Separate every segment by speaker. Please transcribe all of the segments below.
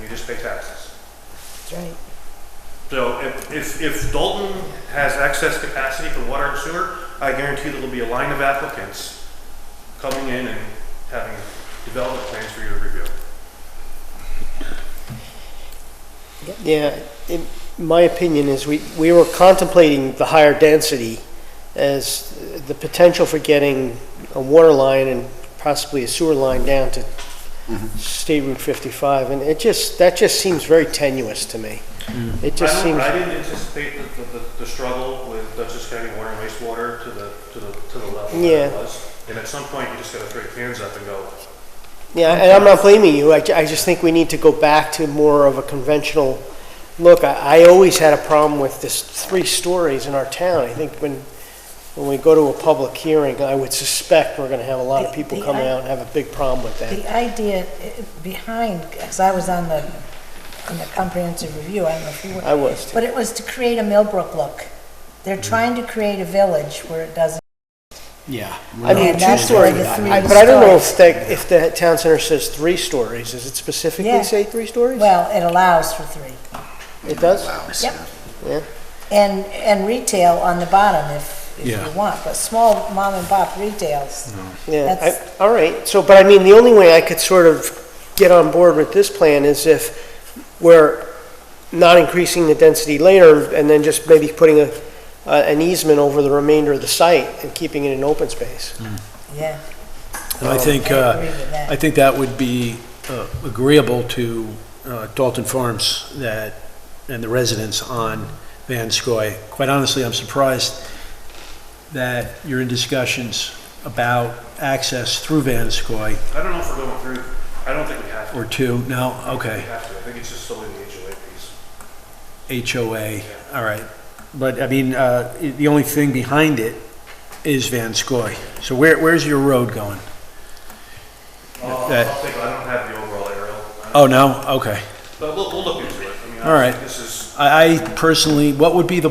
Speaker 1: we just pay taxes.
Speaker 2: That's right.
Speaker 1: So if, if, if Dalton has excess capacity for water and sewer, I guarantee there'll be a line of applicants coming in and having development plans for you to review.
Speaker 2: Yeah, in my opinion is we, we were contemplating the higher density as the potential for getting a water line and possibly a sewer line down to
Speaker 1: Mm-hmm.
Speaker 2: State Route 55, and it just, that just seems very tenuous to me. It
Speaker 1: Mm-hmm. I
Speaker 2: just
Speaker 1: don't-
Speaker 2: seems,
Speaker 1: I didn't anticipate the, the- the, the struggle with Dutchess County Water and Wastewater to the, to the, to the level
Speaker 2: Yeah.
Speaker 1: that it was. And at some point, you just gotta throw your hands up and go,
Speaker 2: yeah, and I'm not blaming you, I, ju- I just think we need to go back to more of a conventional look. I, I always had a problem with this three stories in our town. I think when, when we go to a public hearing, I would suspect we're gonna have a lot of
Speaker 3: The-
Speaker 2: people
Speaker 3: the
Speaker 2: coming
Speaker 3: i-
Speaker 2: out and have a big problem with that.
Speaker 3: The idea eh, behind, because I was on the, on the comprehensive review, I don't know if you were.
Speaker 2: I was too.
Speaker 3: But it was to create a Millbrook look. They're trying to create a village where it doesn't.
Speaker 4: Yeah.
Speaker 2: I mean,
Speaker 3: And
Speaker 2: two
Speaker 3: that's
Speaker 2: story,
Speaker 3: where the three
Speaker 2: I- but I don't know if
Speaker 3: stories-
Speaker 2: that, if the town center says three stories, does it
Speaker 3: Yeah.
Speaker 2: specifically say three stories?
Speaker 3: Well, it allows for three.
Speaker 2: It does?
Speaker 3: Yep.
Speaker 2: Yeah.
Speaker 3: And, and retail on the bottom if, if
Speaker 4: Yeah.
Speaker 3: you want, but small mom and pop retails.
Speaker 2: Yeah,
Speaker 3: That's-
Speaker 2: I, all right, so, but I mean, the only way I could sort of get on board with this plan is if we're not increasing the density later, and then just maybe putting a, a- an easement over the remainder of the site and keeping it an open space.
Speaker 3: Yeah,
Speaker 4: And I think,
Speaker 3: I
Speaker 4: uh,
Speaker 3: agree with that.
Speaker 4: I think that would be uh, agreeable to uh, Dalton Farms that, and the residents on Van Scoy. Quite honestly, I'm surprised that you're in discussions about access through Van Scoy
Speaker 1: I don't know if we're going through, I don't think we have to.
Speaker 4: or two. No,
Speaker 1: We
Speaker 4: okay,
Speaker 1: have to, I think it's just solely the HOA piece.
Speaker 4: HOA, all right. But I mean, uh, i- the only thing behind it is Van Scoy. So where, where's your road going?
Speaker 1: I'll,
Speaker 4: That-
Speaker 1: I'll think, I don't have the overall aerial, I don't-
Speaker 4: Oh, no? Okay.
Speaker 1: but we'll, we'll look into it. I mean,
Speaker 4: All right.
Speaker 1: This is,
Speaker 4: I I personally, what would be the,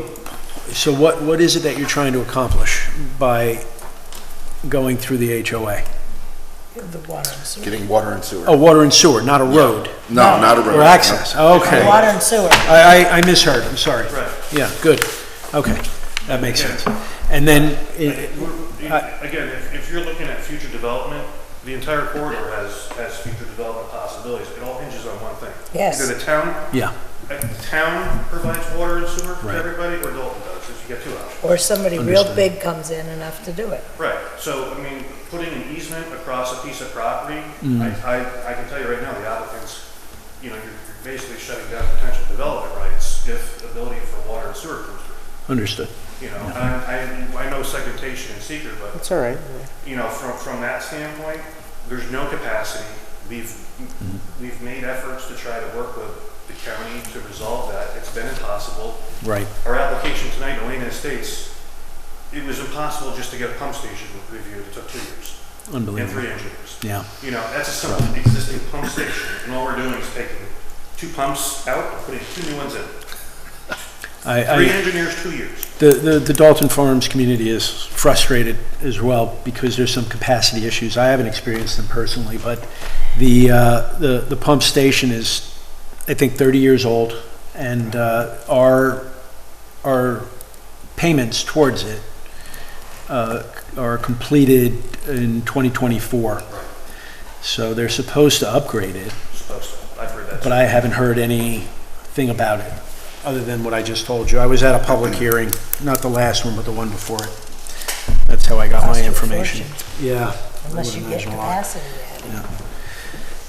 Speaker 4: so what, what is it that you're trying to accomplish by going through the HOA?
Speaker 3: the water and sewer.
Speaker 5: Getting water and sewer.
Speaker 4: Oh, water and sewer, not a road,
Speaker 5: No, not a road.
Speaker 4: or access, okay.
Speaker 3: Water and sewer.
Speaker 4: I, I, I misheard, I'm sorry.
Speaker 1: Right.
Speaker 4: Yeah, good, okay, that makes sense. And then, i- I-
Speaker 1: we're- again, if, if you're looking at future development, the entire corridor has, has future development possibilities. It all hinges on one thing.
Speaker 3: Yes.
Speaker 1: Either the town, uh,
Speaker 4: yeah,
Speaker 1: the town provides water and sewer to
Speaker 4: Right.
Speaker 1: everybody, or Dalton does, if you get two options.
Speaker 3: Or somebody real
Speaker 4: Understood.
Speaker 3: big comes in enough to do it.
Speaker 1: Right, so, I mean, putting an easement across a piece of property,
Speaker 4: Mm-hmm.
Speaker 1: I, I, I can tell you right now, the applicants, you know, you're you're basically shutting down potential development rights if the ability for water and sewer comes through.
Speaker 4: understood.
Speaker 1: You know, and I, I know segmentation is secret, but
Speaker 2: That's all right.
Speaker 1: you know, from, from that standpoint, there's no capacity. We've, we've made efforts to try to work with the county to resolve that. It's been impossible.
Speaker 4: Right,
Speaker 1: Our application tonight, in Elena Estates, it was impossible just to get a pump station reviewed. It took two years and
Speaker 4: unbelievable,
Speaker 1: three engineers.
Speaker 4: yeah,
Speaker 1: You know, that's a simple existing pump station, and all we're doing is taking two pumps out and putting two new ones in.
Speaker 4: I, I.
Speaker 1: Three engineers, two years.
Speaker 4: The, the, the Dalton Farms community is frustrated as well because there's some capacity issues. I haven't experienced them personally, but the, uh, the, the pump station is, I think, 30 years old. And, uh, our, our payments towards it, uh, are completed in 2024. So they're supposed to upgrade it,
Speaker 1: Supposed to. I've heard that.
Speaker 4: but I haven't heard anything about it, other than what I just told you. I was at a public hearing, not the last one, but the one before it. That's how I got
Speaker 3: Cost
Speaker 4: my
Speaker 3: you a
Speaker 4: information. Yeah. I
Speaker 3: Unless
Speaker 4: would
Speaker 3: you get
Speaker 4: imagine a lot.
Speaker 3: capacity added.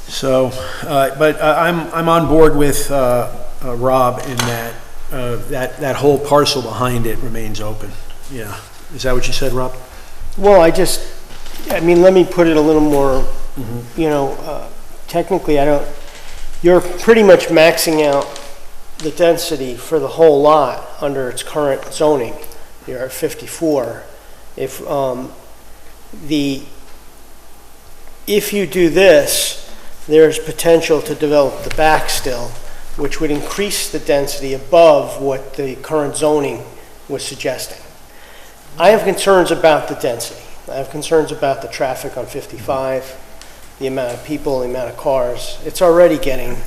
Speaker 4: So, uh, but I- I'm, I'm on board with uh, uh, Rob in that, uh, that, that whole parcel behind it remains open. Yeah. Is that what you said, Rob?
Speaker 2: Well, I just, I mean, let me put it a little more, you know, uh, technically, I don't, you're pretty much maxing out the density for the whole lot under its current zoning. You're at 54. If, um, the, if you do this, there's potential to develop the back still, which would increase the density above what the current zoning was suggesting. I have concerns about the density. I have concerns about the traffic on 55, the amount of people, the amount of cars. It's already getting